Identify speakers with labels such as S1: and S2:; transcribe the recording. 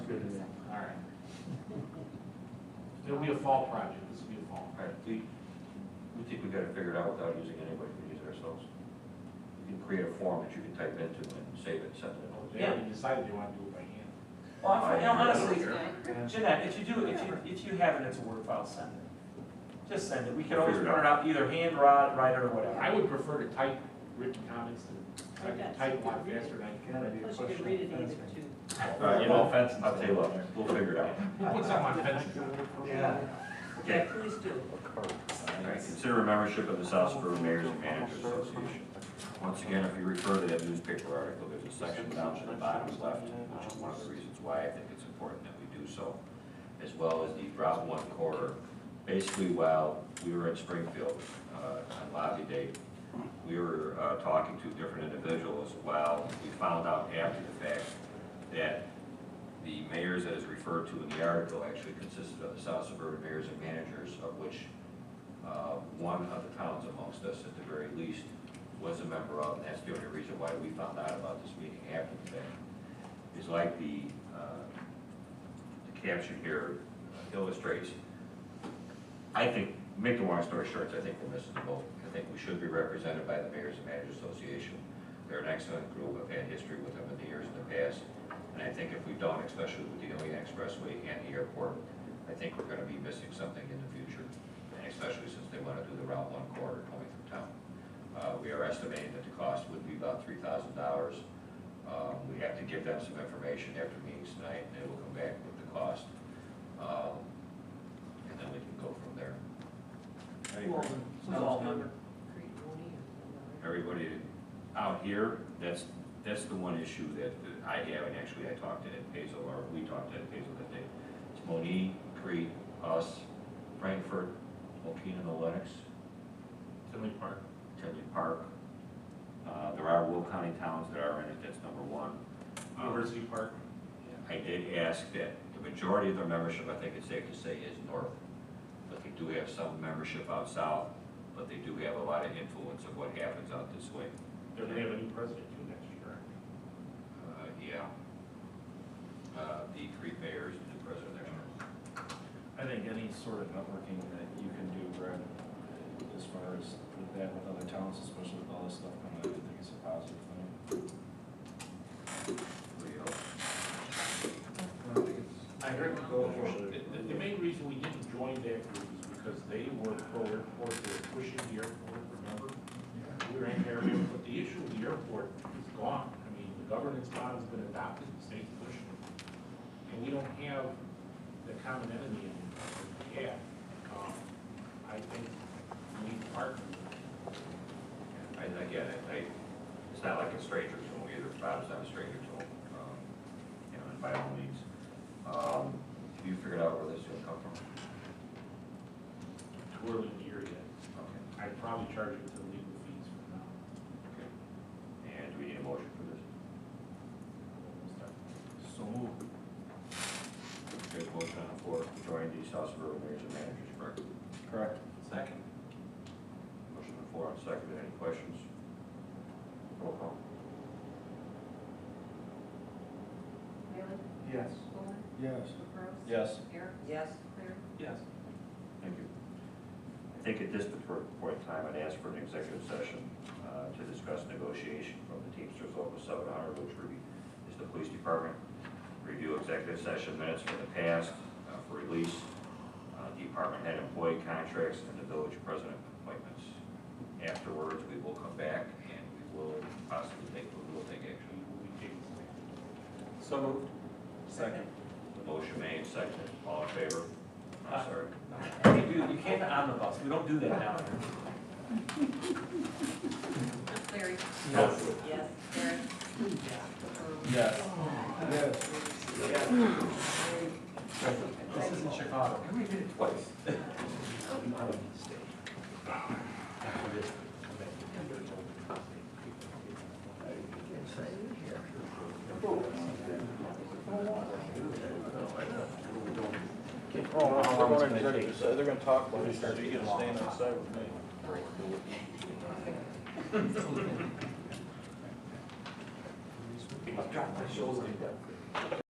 S1: It'll be a fall project, this will be a fall.
S2: All right, we, we think we gotta figure it out without using anybody, we can use it ourselves. You can create a form that you can type into and save it, send it over.
S1: They already decided they want to do it by hand.
S3: Well, I- you know, honestly,
S1: Yeah.
S3: Jeanette, if you do, if you, if you have it, it's a Word file, send it. Just send it. We can always print
S2: Figure it
S3: it out, either hand, rod, write it, or
S1: I
S3: whatever.
S1: would prefer to type written comments than, I can type a lot faster than I can.
S4: Plus you can read it either too.
S2: All right,
S5: You
S2: well,
S5: know, fence and
S2: I'll
S5: stuff.
S2: tell you what, we'll figure it out.
S1: Who puts them on fences?
S5: Yeah.
S4: Okay, please do.
S2: All right, Consider a membership of the South Suburban Mayors and Managers Association. Once again, if you refer to that newspaper article, there's a section down to the bottom left, which is one of the reasons why I think it's important that we do so, as well as the Route One corridor. Basically, while we were in Springfield uh, on lobby day, we were uh, talking to different individuals. While we found out after the fact that the mayors that is referred to in the article actually consisted of the South Suburban Mayors and Managers, of which uh, one of the towns amongst us at the very least was a member of, and that's the only reason why we found out about this meeting after the fact. It's like the, uh, the caption here illustrates, I think, make the long story short, I think we're missing the boat. I think we should be represented by the Mayor's and Managers Association. They're an excellent group, I've had history with them in the years in the past, and I think if we don't, especially with the Ilion Expressway and the airport, I think we're gonna be missing something in the future, and especially since they wanna do the Route One corridor going through town. Uh, we are estimating that the cost would be about three thousand dollars. Um, we have to give them some information after meetings tonight, and they will come back with the cost. Um, and then we can go from there. Everybody out here, that's, that's the one issue that I have, and actually I talked to Ed Pazel, or we talked to Ed Pazel that day. It's Monique, Crete, us, Frankfurt, Okina, and Lennox.
S1: Tinley Park.
S2: Tinley Park. Uh, There are Will County towns that are in it, that's number one. Um,
S1: University Park.
S2: I did ask that the majority of their membership, I think it's safe to say, is north, but they do have some membership out south, but they do have a lot of influence of what happens out this way.
S1: They're gonna have a new president too next year.
S2: Uh, Yeah. Uh, The three mayors and the president there.
S5: I think any sort of networking that you can do, Brad, as far as with that with other towns, especially with all this stuff coming out, I think it's a positive thing.
S2: What do you know?
S1: I heard the, the main reason we didn't join that group is because they were pro-airport, they were pushing the airport, remember? We were in there, but the issue of the airport is gone. I mean, the governance model's been adopted, the state's pushing it. And we don't have the common enemy in we have. Um, I think we need to partner.
S2: And again, I- I- it's not like a stranger to them either, Bob's not a stranger to them, um, you know, and by all means. Um, Have you figured out where this is gonna come from?
S1: Too early in the year yet.
S2: Okay.
S1: I'd probably charge it to the legal fees for now.
S2: Okay. And do we need a motion for this?
S5: So moved.
S2: There's a motion on the floor to join the South Suburban Mayors and Managers, correct?
S5: Correct.
S1: Second.
S2: Motion on the floor, and seconded, any questions? Roll call.
S6: Bailey?
S1: Yes.
S6: Coleman?
S5: Yes.
S6: McCoy?
S5: Yes.
S6: Eric?
S4: Yes.
S6: Claire?
S1: Yes.
S2: Thank you. I think at this particular point in time, I'd ask for an executive session uh, to discuss negotiation from the Teamsters Local 700, which would be- is the police department. Review executive session minutes from the past uh, for release, uh, department head employee contracts, and the village president appointments. Afterwards, we will come back and we will possibly take, we will take action.
S3: So moved.
S5: Second.
S2: The motion made, seconded, all in favor?
S5: Uh,
S2: I'm sorry.
S3: Hey, dude, you came to omnibus. We don't do that now.
S6: Clary?
S5: Yes.
S4: Yes.
S6: Eric?
S5: Yes. Yes.
S3: This isn't Chicago.
S2: We did it twice.
S5: They're gonna talk about it.
S3: Drop my shoulders.